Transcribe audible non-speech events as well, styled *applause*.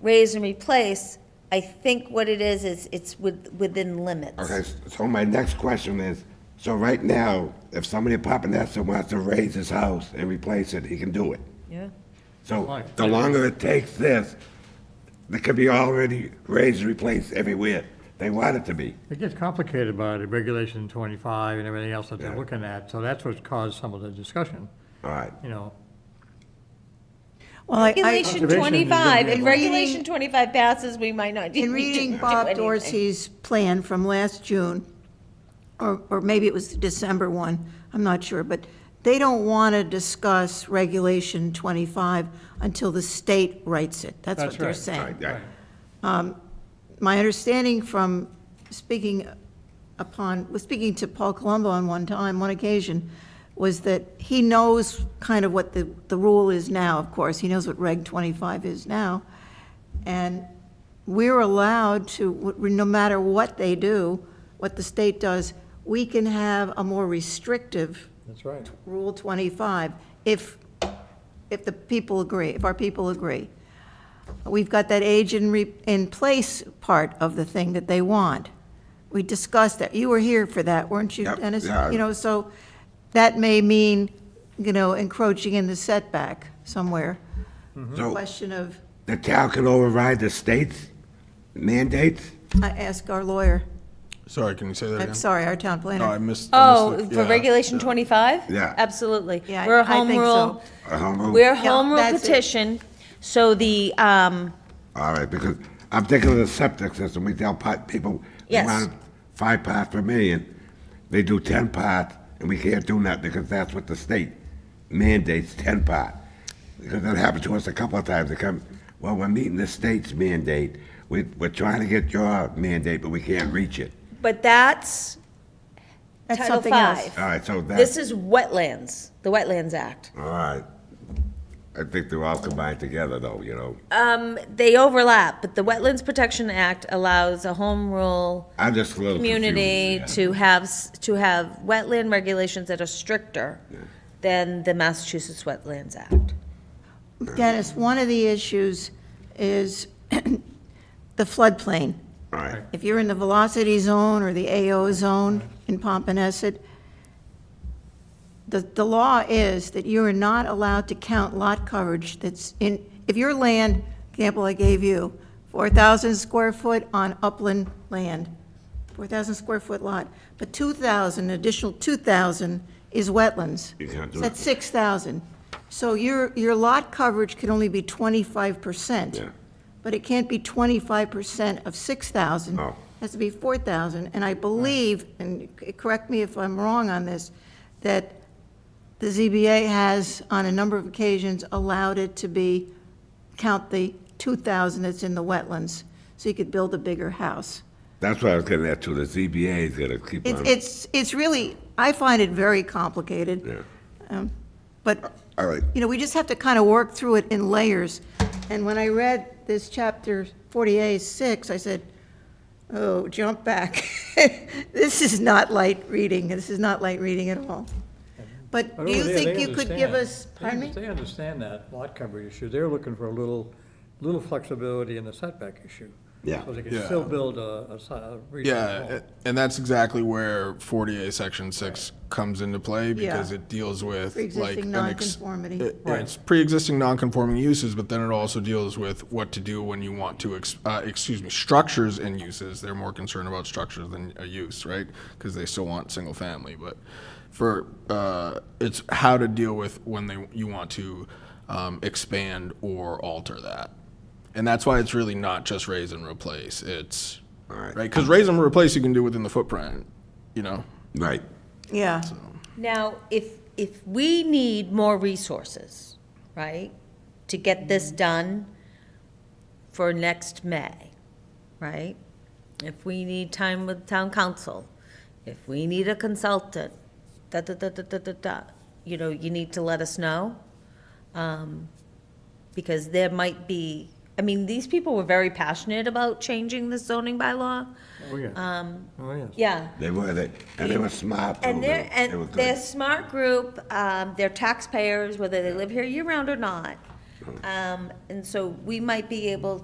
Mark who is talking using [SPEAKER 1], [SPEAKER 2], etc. [SPEAKER 1] raise and replace, I think what it is, is it's with, within limits.
[SPEAKER 2] Okay, so my next question is, so right now, if somebody in Papaneset wants to raise his house and replace it, he can do it.
[SPEAKER 1] Yeah.
[SPEAKER 2] So the longer it takes this, it could be already raised and replaced everywhere they want it to be.
[SPEAKER 3] It gets complicated by the regulation twenty-five and everything else that they're
[SPEAKER 2] Yeah.
[SPEAKER 3] looking at, so that's what's caused some of the discussion,
[SPEAKER 2] All right.
[SPEAKER 3] you know.
[SPEAKER 4] Well, I- I,
[SPEAKER 1] Regulation
[SPEAKER 3] Observation is gonna be
[SPEAKER 1] twenty-five,
[SPEAKER 3] good.
[SPEAKER 1] if regulation twenty-five passes, we might not.
[SPEAKER 4] in
[SPEAKER 1] need to
[SPEAKER 4] reading
[SPEAKER 1] do
[SPEAKER 4] Bob
[SPEAKER 1] anything.
[SPEAKER 4] Dorsey's plan from last June, or, or maybe it was the December one, I'm not sure, but they don't want to discuss Regulation 25 until the state writes it. That's
[SPEAKER 3] That's
[SPEAKER 4] what they're
[SPEAKER 3] right.
[SPEAKER 4] saying.
[SPEAKER 2] All right.
[SPEAKER 4] my understanding from speaking upon, was speaking to Paul Colombo on one time, one occasion, was that he knows kind of what the, the rule is now, of course, he knows what Reg 25 is now, and we're allowed to, no matter what they do, what the state does, we can have a more restrictive
[SPEAKER 3] That's right.
[SPEAKER 4] Rule 25, if, if the people agree, if our people agree. We've got that age in, re- in place part of the thing that they want. We discussed that. You were here for that, weren't you,
[SPEAKER 2] Yep,
[SPEAKER 4] Dennis?
[SPEAKER 2] yeah.
[SPEAKER 4] You know, so that may mean, you know, encroaching in the setback somewhere.
[SPEAKER 2] So
[SPEAKER 4] Question of,
[SPEAKER 2] the town can override the state's mandates?
[SPEAKER 4] I ask our lawyer,
[SPEAKER 5] Sorry, can you say that again?
[SPEAKER 4] I'm sorry, our town
[SPEAKER 5] No, I
[SPEAKER 4] planner.
[SPEAKER 5] missed. I
[SPEAKER 6] Oh,
[SPEAKER 5] missed the-
[SPEAKER 6] for
[SPEAKER 5] yeah.
[SPEAKER 6] regulation twenty-five?
[SPEAKER 2] Yeah.
[SPEAKER 6] Absolutely.
[SPEAKER 4] Yeah,
[SPEAKER 6] We're a
[SPEAKER 4] I
[SPEAKER 6] home
[SPEAKER 4] think
[SPEAKER 6] rule.
[SPEAKER 2] Uh, home rule?
[SPEAKER 6] We're a
[SPEAKER 4] Yeah,
[SPEAKER 6] home rule
[SPEAKER 4] that's it.
[SPEAKER 6] petition, so the, um,
[SPEAKER 2] All right, because I'm thinking of the septic system, we tell pot, people, they
[SPEAKER 6] Yes.
[SPEAKER 2] want five parts per million, they do ten parts, and we can't do nothing, because that's what the state mandates, ten part. Because that happened to us a couple of times, they come, well, we're meeting the state's mandate, we, we're trying to get your mandate, but we can't reach it.
[SPEAKER 6] but that's
[SPEAKER 4] That's
[SPEAKER 6] Title
[SPEAKER 4] something else.
[SPEAKER 6] Five.
[SPEAKER 2] All right, so that's.
[SPEAKER 6] This is wetlands, the Wetlands Act.
[SPEAKER 2] All right. I think they're all combined together, though, you know?
[SPEAKER 6] Uh, They overlap, but the Wetlands Protection Act allows a home rule
[SPEAKER 2] I'm just a little confused.
[SPEAKER 6] community
[SPEAKER 2] yeah.
[SPEAKER 6] to have, s- to have wetland regulations that are stricter than the Massachusetts Wetlands Act.
[SPEAKER 4] Dennis, one of the issues is *clears throat* the floodplain.
[SPEAKER 2] All right,
[SPEAKER 4] If you're in the velocity zone or the AO zone in Pompanesset, the, the law is that you are not allowed to count lot coverage that's in, if your land, example I gave you, 4,000 square foot on upland land, 4,000 square foot lot, but 2,000, additional 2,000 is wetlands.
[SPEAKER 2] You can't do
[SPEAKER 4] So
[SPEAKER 2] it.
[SPEAKER 4] That's 6,000. So your, your lot coverage can only be 25%.
[SPEAKER 2] Yeah.
[SPEAKER 4] But it can't be 25% of 6,000.
[SPEAKER 2] Oh.
[SPEAKER 4] It Has to be 4,000. And I believe, and c- correct me if I'm wrong on this, that the ZBA has, on a number of occasions, allowed it to be, count the 2,000 that's in the wetlands, so you could build a bigger house.
[SPEAKER 2] that's what I was getting at, too, the ZBA is gonna keep
[SPEAKER 4] It's,
[SPEAKER 2] on.
[SPEAKER 4] it's, it's really, I find it very complicated.
[SPEAKER 2] Yeah.
[SPEAKER 4] Um, But,
[SPEAKER 2] All right,
[SPEAKER 4] you know, we just have to kind of work through it in layers. And when I read this chapter 48-6, I said, oh, jump back. *laughs* This is not light reading, this is not light reading at all. But
[SPEAKER 3] But
[SPEAKER 4] do you
[SPEAKER 3] over there,
[SPEAKER 4] think
[SPEAKER 3] they
[SPEAKER 4] you could
[SPEAKER 3] understand.
[SPEAKER 4] give us,
[SPEAKER 3] They
[SPEAKER 4] pardon
[SPEAKER 3] under-
[SPEAKER 4] me?
[SPEAKER 3] They understand that lot coverage issue, they're looking for a little, little flexibility in the setback issue.
[SPEAKER 2] Yeah.
[SPEAKER 3] So they can
[SPEAKER 5] Yeah.
[SPEAKER 3] still build a, a si- a reasonable
[SPEAKER 5] Yeah,
[SPEAKER 3] home.
[SPEAKER 5] a- and that's exactly where 48 Section 6 comes into play because
[SPEAKER 4] Yeah.
[SPEAKER 5] it deals with like.
[SPEAKER 4] Pre-existing
[SPEAKER 5] an ex- uh,
[SPEAKER 4] nonconformity.
[SPEAKER 5] it-
[SPEAKER 3] Right.
[SPEAKER 5] It's pre-existing non-conforming uses, but then it also deals with what to do when you want to, ex- uh, excuse me, structures and uses. They're more concerned about structures than a use, right? Because they still want single family, but for, uh, it's how to deal with when they, you want to um, expand or alter that. And that's why it's really not just raise and replace, it's, right,
[SPEAKER 2] Alright.
[SPEAKER 5] because raise and replace you can do within the footprint, you know?
[SPEAKER 2] right.
[SPEAKER 4] Yeah.
[SPEAKER 6] Now, if, if we need more resources, right, to get this done for next May, right? If we need time with town council, if we need a consultant, da, da, da, da, da, da, da, you know, you need to let us know. um, Because there might be, I mean, these people were very passionate about changing the zoning bylaw.
[SPEAKER 3] Oh, yeah.
[SPEAKER 4] Um,
[SPEAKER 3] Oh, yes.
[SPEAKER 6] Yeah,
[SPEAKER 2] They were, they, and they were smart, too.
[SPEAKER 6] and they're,
[SPEAKER 2] They- they were
[SPEAKER 6] and
[SPEAKER 2] good.
[SPEAKER 6] they're a smart group, um, they're taxpayers, whether they live here year-round or not. Um, and so we might be able